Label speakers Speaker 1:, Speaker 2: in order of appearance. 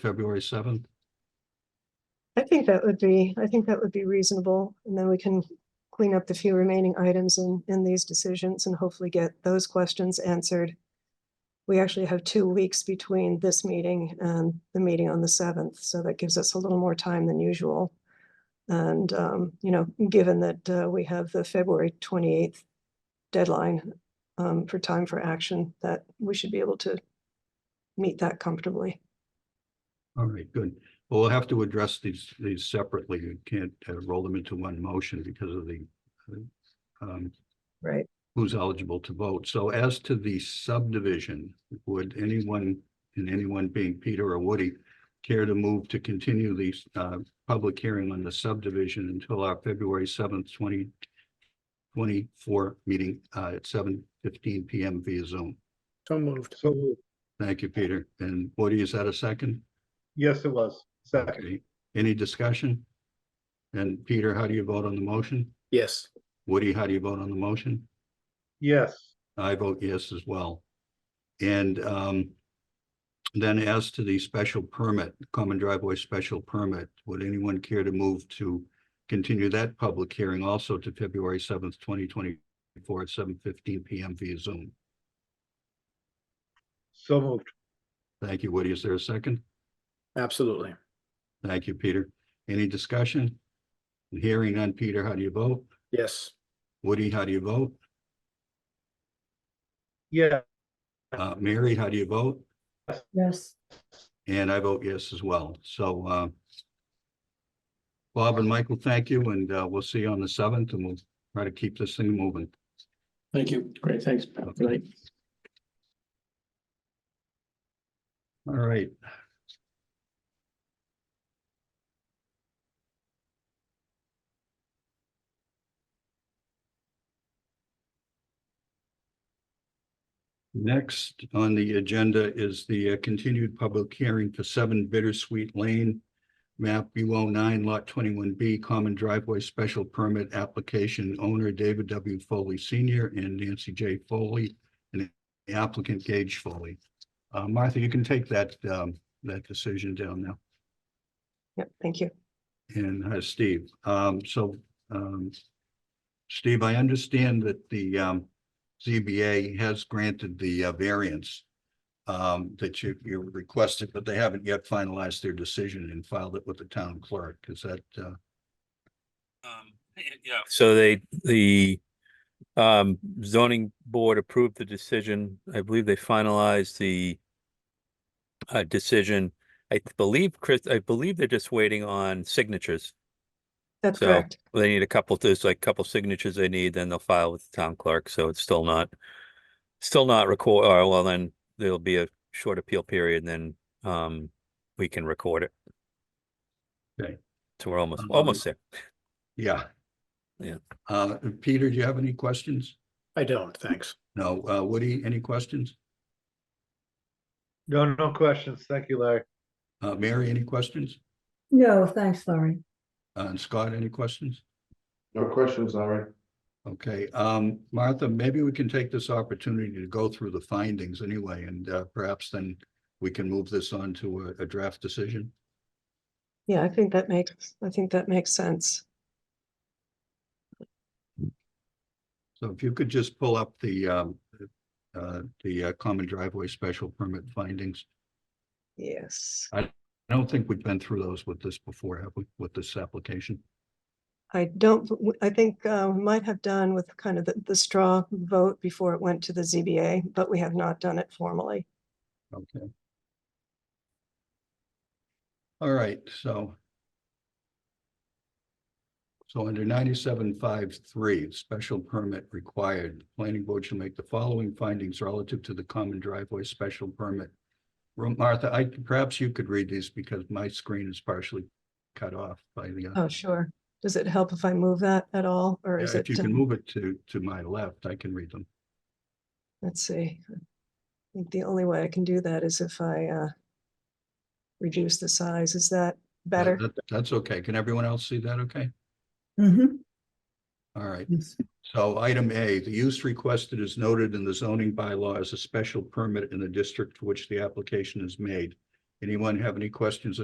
Speaker 1: February seventh?
Speaker 2: I think that would be, I think that would be reasonable, and then we can clean up the few remaining items in, in these decisions and hopefully get those questions answered. We actually have two weeks between this meeting and the meeting on the seventh, so that gives us a little more time than usual. And, um, you know, given that, uh, we have the February twenty-eighth deadline, um, for time for action, that we should be able to meet that comfortably.
Speaker 1: All right, good. Well, we'll have to address these, these separately. You can't uh, roll them into one motion because of the uh, um,
Speaker 2: Right.
Speaker 1: who's eligible to vote. So as to the subdivision, would anyone, and anyone being Peter or Woody, care to move to continue the uh, public hearing on the subdivision until our February seventh, twenty twenty-four meeting uh, at seven fifteen PM via Zoom?
Speaker 3: So moved.
Speaker 4: So, moved.
Speaker 1: Thank you, Peter. And Woody, is that a second?
Speaker 4: yes, it was. Second,
Speaker 1: Okay, any discussion? And Peter, how do you vote on the motion?
Speaker 3: Yes.
Speaker 1: Woody, how do you vote on the motion?
Speaker 4: yes,
Speaker 1: I vote yes as well. And um. Then as to the special permit, common driveway special permit, would anyone care to move to continue that public hearing also to February seventh, twenty twenty-four at seven fifteen PM via Zoom?
Speaker 4: so moved.
Speaker 1: Thank you, Woody. Is there a second?
Speaker 3: Absolutely.
Speaker 1: Thank you, Peter. Any discussion? Hearing none. Peter, how do you vote?
Speaker 3: Yes.
Speaker 1: Woody, how do you vote?
Speaker 4: Yeah,
Speaker 1: Uh, Mary, how do you vote?
Speaker 5: Yes,
Speaker 1: And I vote yes as well. So, uh, Bob and Michael, thank you, and, uh, we'll see you on the seventh and we'll try to keep this thing moving.
Speaker 6: Thank you. Great, thanks. Pat. Good night.
Speaker 1: All right. Next on the agenda is the uh, continued public hearing for seven Bittersweet Lane, map U O nine lot twenty-one B, common driveway special permit application owner David W. Foley Senior and Nancy J. Foley, and applicant Gage Foley. Uh, Martha, you can take that, um, that decision down now.
Speaker 2: Yep, thank you.
Speaker 1: And uh, Steve, um, so, um, Steve, I understand that the, um, ZBA has granted the uh, variance um, that you, you requested, but they haven't yet finalized their decision and filed it with the town clerk. Is that, uh,
Speaker 7: Um, yeah. So they, the um zoning board approved the decision. I believe they finalized the uh decision. I th- believe, Chris, I believe they're just waiting on signatures.
Speaker 2: That's
Speaker 7: So-
Speaker 2: correct.
Speaker 7: They need a couple, there's like a couple signatures they need, then they'll file with the town clerk, so it's still not still not record, or well, then there'll be a short appeal period, and then um we can record it.
Speaker 1: Okay.
Speaker 7: So we're almost,
Speaker 1: Um,
Speaker 7: almost there.
Speaker 1: yeah?
Speaker 7: Yeah.
Speaker 1: Uh, Peter, do you have any questions?
Speaker 3: I don't, thanks.
Speaker 1: No, uh, Woody, any questions?
Speaker 4: no, no questions. Thank you, Larry.
Speaker 1: Uh, Mary, any questions?
Speaker 5: no, thanks, Larry.
Speaker 1: Uh, And Scott, any questions?
Speaker 8: No questions, Larry.
Speaker 1: Okay, um, Martha, maybe we can take this opportunity to go through the findings anyway, and uh, perhaps then we can move this on to a, a draft decision.
Speaker 2: Yeah, I think that makes, I think that makes sense.
Speaker 1: So if you could just pull up the, um, uh, the uh, common driveway special permit findings.
Speaker 2: Yes,
Speaker 1: I don't think we've been through those with this before, have we, with this application?
Speaker 2: I don't, w- I think uh, we might have done with kind of the, the straw vote before it went to the ZBA, but we have not done it formally.
Speaker 1: Okay. All right, so. So under ninety-seven five three, special permit required, planning board shall make the following findings relative to the common driveway special permit. Ro- Martha, I, perhaps you could read these because my screen is partially cut off by the. uh,
Speaker 2: Oh, sure. Does it help if I move that at all, or is it,
Speaker 1: If you
Speaker 2: uh,
Speaker 1: can move it to, to my left, I can read them.
Speaker 2: let's see. I think the only way I can do that is if I uh, reduce the size. Is that
Speaker 1: That-
Speaker 2: better?
Speaker 1: that- That's okay. Can everyone else see that? Okay,
Speaker 5: Mm-hmm.
Speaker 1: all right. So item A, the use requested is noted in the zoning bylaw as a special permit in the district to which the application is made. Anyone have any questions or